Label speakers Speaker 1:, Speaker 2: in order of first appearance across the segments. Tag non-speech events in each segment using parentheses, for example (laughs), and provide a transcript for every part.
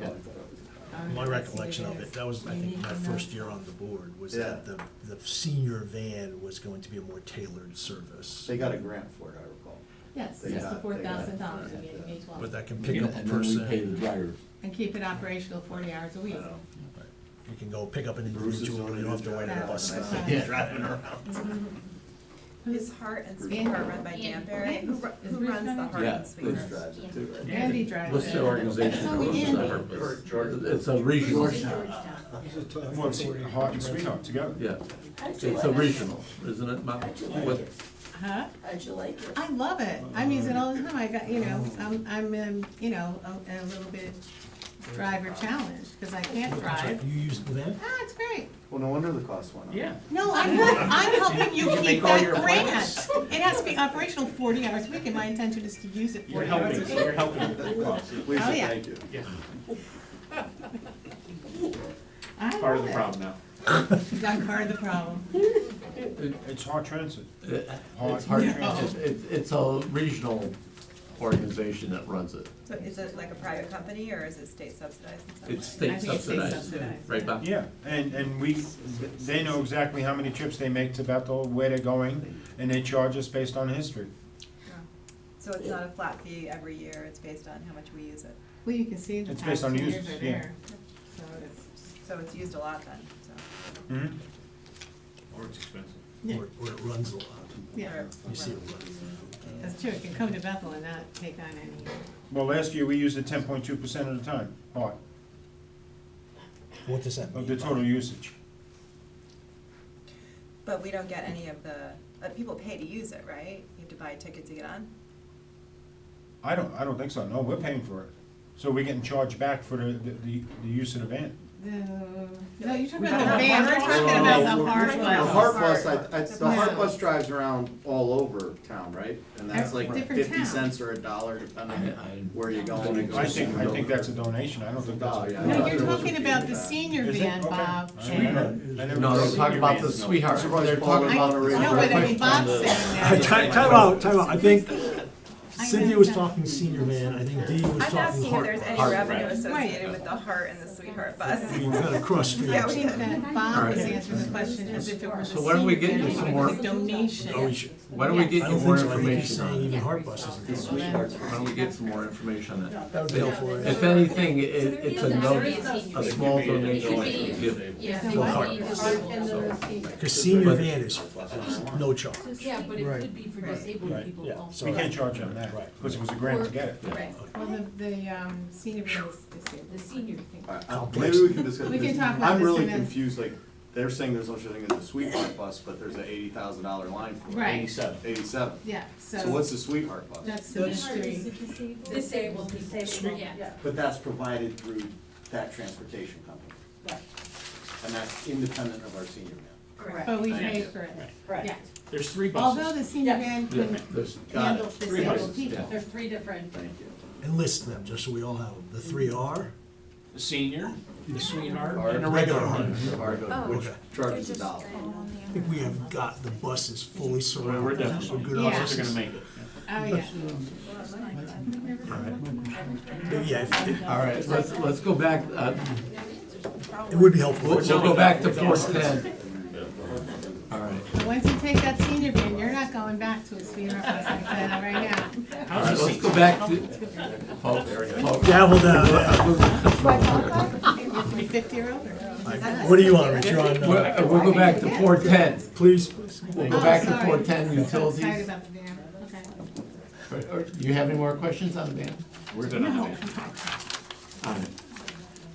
Speaker 1: Yeah.
Speaker 2: My recollection of it, that was, I think, my first year on the board, was that
Speaker 1: Yeah.
Speaker 2: the, the senior van was going to be a more tailored service.
Speaker 1: They got a grant for it, I recall.
Speaker 3: Yes,
Speaker 1: They got-
Speaker 3: sixty-four
Speaker 1: they got-
Speaker 3: thousand dollars,
Speaker 1: yeah.
Speaker 3: we gave May twelve.
Speaker 2: But that can pick
Speaker 4: And
Speaker 2: up a
Speaker 4: and then we pay the
Speaker 2: person,
Speaker 4: driver.
Speaker 3: And keep it operational forty hours a
Speaker 1: I
Speaker 3: week.
Speaker 1: don't know.
Speaker 2: you can go pick up an
Speaker 1: Bruce is
Speaker 2: individual,
Speaker 1: doing
Speaker 2: you don't have to
Speaker 1: a
Speaker 2: wait
Speaker 1: good
Speaker 2: at a
Speaker 1: job. (laughs)
Speaker 2: bus
Speaker 1: I
Speaker 2: stop.
Speaker 1: see him Driving
Speaker 3: (laughs)
Speaker 1: around.
Speaker 5: His Heart and Sweet
Speaker 3: Andy.
Speaker 5: Heart run by Dan Barrett, who, ru-
Speaker 3: Is
Speaker 5: who
Speaker 3: Bruce
Speaker 5: runs the
Speaker 3: running?
Speaker 5: Heart
Speaker 4: Yeah,
Speaker 5: and Sweet
Speaker 1: Bruce
Speaker 4: Bruce.
Speaker 5: Heart.
Speaker 1: drives it too, right?
Speaker 3: Andy drives it.
Speaker 4: What's the organization?
Speaker 3: So we
Speaker 4: What's the
Speaker 3: Andy.
Speaker 4: purpose?
Speaker 1: George-
Speaker 4: It's a regional.
Speaker 3: Bruce is Georgetown, yeah.
Speaker 6: Everyone see Heart and Sweetheart together.
Speaker 4: Yeah, it's a regional, isn't it, Mom? What-
Speaker 3: Huh?
Speaker 7: How'd you like it?
Speaker 3: I love it. I'm using it all the time. I got, you know, I'm, I'm, um, you know, a, a little bit driver challenged, because I can't drive.
Speaker 2: You use the van?
Speaker 3: Ah, it's great.
Speaker 1: Well, no wonder the cost went up.
Speaker 3: No, I'm, hel- I'm helping you
Speaker 8: Did you
Speaker 3: keep
Speaker 8: make all
Speaker 3: that
Speaker 8: your appointments?
Speaker 3: grant. It has to be operational forty hours a week, and my intention is to use it
Speaker 8: You're
Speaker 3: forty hours a
Speaker 8: helping,
Speaker 3: week.
Speaker 8: you're
Speaker 1: (laughs)
Speaker 8: helping.
Speaker 1: Lisa,
Speaker 3: Oh, yeah.
Speaker 1: thank you.
Speaker 8: Yeah,
Speaker 3: I
Speaker 8: part of
Speaker 3: love
Speaker 8: the
Speaker 3: it.
Speaker 8: problem now.
Speaker 3: Not part of the problem.
Speaker 4: it-
Speaker 6: It's Heart Transit.
Speaker 4: it-
Speaker 6: Heart
Speaker 4: It's hard,
Speaker 3: No.
Speaker 4: it's, it's- it's a regional organization that runs it.
Speaker 5: So is it like a private company or is it state subsidized in some way?
Speaker 4: It's state
Speaker 3: think it's state
Speaker 4: subsidized,
Speaker 3: subsidized,
Speaker 4: right, Bob?
Speaker 6: Yeah, and, and we, they know exactly how many trips they make to Bethel, where they're going, and they charge us based on history.
Speaker 5: So it's not a flat fee every year, it's based on how much we use it.
Speaker 3: Well, you can see in the
Speaker 6: It's
Speaker 3: past
Speaker 6: based on
Speaker 3: two years
Speaker 6: users,
Speaker 3: are
Speaker 6: yeah.
Speaker 3: there. So it's,
Speaker 5: So it's used a lot then, so.
Speaker 6: Mhm.
Speaker 8: Or it's expensive.
Speaker 3: Yeah.
Speaker 2: Or, or it runs a lot,
Speaker 3: yeah,
Speaker 5: or-
Speaker 2: you see it
Speaker 5: or-
Speaker 2: runs.
Speaker 3: that's true. It can come to Bethel and not take on any.
Speaker 6: Well, last year, we used it ten point two percent of the time, Heart,
Speaker 2: What does that mean?
Speaker 6: (laughs) of the total usage.
Speaker 5: But we don't get any of the, uh, people pay to use it, right? You have to buy a ticket to get on?
Speaker 6: I don't, I don't think so, no, we're paying for it. So we're getting charged back for the, the, the- the use of the van.
Speaker 3: The, no, you're talking
Speaker 5: We
Speaker 3: about
Speaker 5: don't
Speaker 3: the van.
Speaker 5: have
Speaker 3: We're
Speaker 5: one.
Speaker 3: talking about the hard
Speaker 5: The
Speaker 1: The
Speaker 5: Wow.
Speaker 1: Heart
Speaker 3: ones.
Speaker 1: Bus, I, I, the
Speaker 3: Yeah.
Speaker 1: Heart Bus drives around all over town, right? And that's
Speaker 3: Every
Speaker 1: like
Speaker 3: different
Speaker 1: fifty
Speaker 3: town.
Speaker 1: cents or a dollar depending
Speaker 4: I- I-
Speaker 1: on where you're going. to go.
Speaker 6: I think, I think that's a donation, I don't think that's.
Speaker 1: Dollar, oh, yeah.
Speaker 6: a-
Speaker 3: No, you're
Speaker 1: There was a
Speaker 3: talking
Speaker 1: fee
Speaker 3: about
Speaker 1: for
Speaker 3: the
Speaker 1: that.
Speaker 3: senior
Speaker 6: Is it?
Speaker 3: van,
Speaker 6: Okay.
Speaker 3: Bob.
Speaker 6: I
Speaker 3: and-
Speaker 6: never- I never-
Speaker 4: No, they're talking about the sweetheart,
Speaker 1: Surprised
Speaker 4: they're
Speaker 1: Paul
Speaker 4: talking
Speaker 1: didn't
Speaker 4: about.
Speaker 1: want to raise
Speaker 3: No, but I mean, Bob's saying
Speaker 2: (laughs) Uh,
Speaker 3: that.
Speaker 2: Time, time out, time out, I think
Speaker 3: I
Speaker 2: Cynthia
Speaker 3: know
Speaker 2: was
Speaker 3: that.
Speaker 2: talking senior van, I think Dee was
Speaker 5: I'm
Speaker 2: talking
Speaker 5: asking if
Speaker 2: heart.
Speaker 5: there's any
Speaker 4: Heart,
Speaker 5: revenue
Speaker 4: right.
Speaker 5: associated with the Heart and the Sweetheart bus.
Speaker 2: You kind of cross streams.
Speaker 5: Yeah,
Speaker 3: I
Speaker 5: we
Speaker 3: think that
Speaker 4: All
Speaker 3: Bob
Speaker 4: right.
Speaker 3: was answering the question as if it were the
Speaker 4: So why don't we
Speaker 3: senior
Speaker 4: get you
Speaker 3: van,
Speaker 4: some
Speaker 3: it
Speaker 4: more-
Speaker 3: was a donation.
Speaker 2: Oh, we should-
Speaker 4: Why don't we
Speaker 2: I
Speaker 4: get you
Speaker 2: don't
Speaker 4: more
Speaker 2: think so, I think he's
Speaker 4: information
Speaker 2: saying
Speaker 4: on
Speaker 2: even
Speaker 4: it?
Speaker 2: heart buses.
Speaker 1: These
Speaker 2: is-
Speaker 1: sweethearts.
Speaker 4: Why don't we get some more information on that?
Speaker 2: That would be helpful. right?
Speaker 4: If anything, it, it's
Speaker 5: (laughs)
Speaker 4: a
Speaker 7: no-
Speaker 4: note, a small donation we can give.
Speaker 9: Yeah.
Speaker 2: For heart. Because senior
Speaker 4: But-
Speaker 2: van is, is no charge.
Speaker 9: Yeah, but it
Speaker 2: Right.
Speaker 9: could be for
Speaker 3: Right.
Speaker 9: disabled
Speaker 2: Right,
Speaker 9: people
Speaker 2: yeah,
Speaker 9: also.
Speaker 6: We can't charge on that,
Speaker 2: Right.
Speaker 6: because it was a grant to get it.
Speaker 3: Right, well, the, the, um, senior van is disabled.
Speaker 9: The senior thing.
Speaker 1: All right, uh,
Speaker 2: Complex.
Speaker 1: Maybe we can discuss.
Speaker 3: We
Speaker 1: this.
Speaker 3: can talk about
Speaker 1: I'm
Speaker 3: this
Speaker 1: really
Speaker 3: and then-
Speaker 1: confused, like, they're saying there's no such thing as a sweetheart bus, but there's an eighty thousand dollar line for it.
Speaker 3: Right,
Speaker 8: Eighty-seven.
Speaker 1: Eighty-seven.
Speaker 3: yeah, so.
Speaker 1: So what's the sweetheart bus?
Speaker 3: That's the street.
Speaker 9: Disabled people, yeah.
Speaker 1: But that's provided through that transportation company, and that's independent of our senior van.
Speaker 7: Correct,
Speaker 3: But we pay for it, yeah.
Speaker 7: correct.
Speaker 8: There's three buses.
Speaker 3: Although the senior van
Speaker 4: Yeah,
Speaker 3: can
Speaker 4: there's-
Speaker 1: Got
Speaker 3: handle
Speaker 1: it.
Speaker 8: Three
Speaker 3: disabled
Speaker 8: buses,
Speaker 3: people.
Speaker 4: yeah.
Speaker 7: three different.
Speaker 1: Thank you.
Speaker 2: And list them, just so we all have them. The three are?
Speaker 8: The senior, the sweetheart,
Speaker 1: Heart.
Speaker 8: and a regular
Speaker 2: Regular
Speaker 8: heart.
Speaker 1: Heart,
Speaker 6: Oh,
Speaker 1: which
Speaker 2: Okay.
Speaker 1: charges a dollar.
Speaker 2: I think we have got the buses fully
Speaker 8: Well, we're
Speaker 2: surrounded with
Speaker 8: definitely,
Speaker 2: good
Speaker 3: Yeah.
Speaker 8: buses are
Speaker 2: officers.
Speaker 8: gonna make it.
Speaker 3: Oh, yeah.
Speaker 2: Yeah, if- it-
Speaker 4: All right, let's, let's go back, uh,
Speaker 2: it would be helpful.
Speaker 4: we'll, we'll go back to four ten. All right,
Speaker 3: But once you take that senior van, you're not going back to a senior bus like that right now.
Speaker 4: all right, let's go back to, folks, folks.
Speaker 2: Gavel down, yeah.
Speaker 3: You're fifty or older.
Speaker 2: Like, What do you want, Rich? You're on,
Speaker 4: We'll,
Speaker 2: uh,
Speaker 4: uh, we'll go back to four ten,
Speaker 2: please,
Speaker 4: we'll
Speaker 3: Oh,
Speaker 4: go back to
Speaker 3: sorry.
Speaker 4: four ten
Speaker 3: Sorry
Speaker 4: utilities.
Speaker 3: about the van, okay.
Speaker 4: Or- or Do you have any more questions on the van?
Speaker 8: We're good on that.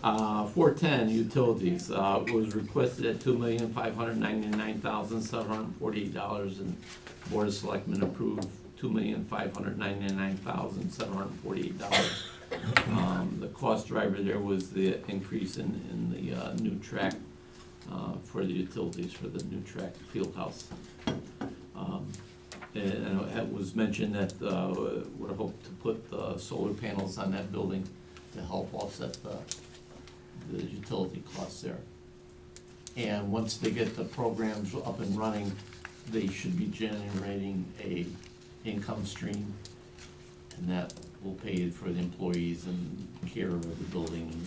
Speaker 4: Uh, four ten, utilities, uh, was requested at two million, five hundred ninety-nine thousand, seven hundred forty-eight dollars, and Board of Selectmen approved two million, five hundred ninety-nine thousand, seven hundred forty-eight dollars. Um, the cost driver there was the increase in, in the, uh, new track, uh, for the utilities for the new track field house. Um, and, and it was mentioned that, uh, would hope to put, uh, solar panels on that building to help offset the, the utility costs there. And once they get the programs up and running, they should be generating a income stream. And that will pay for the employees and care of the building and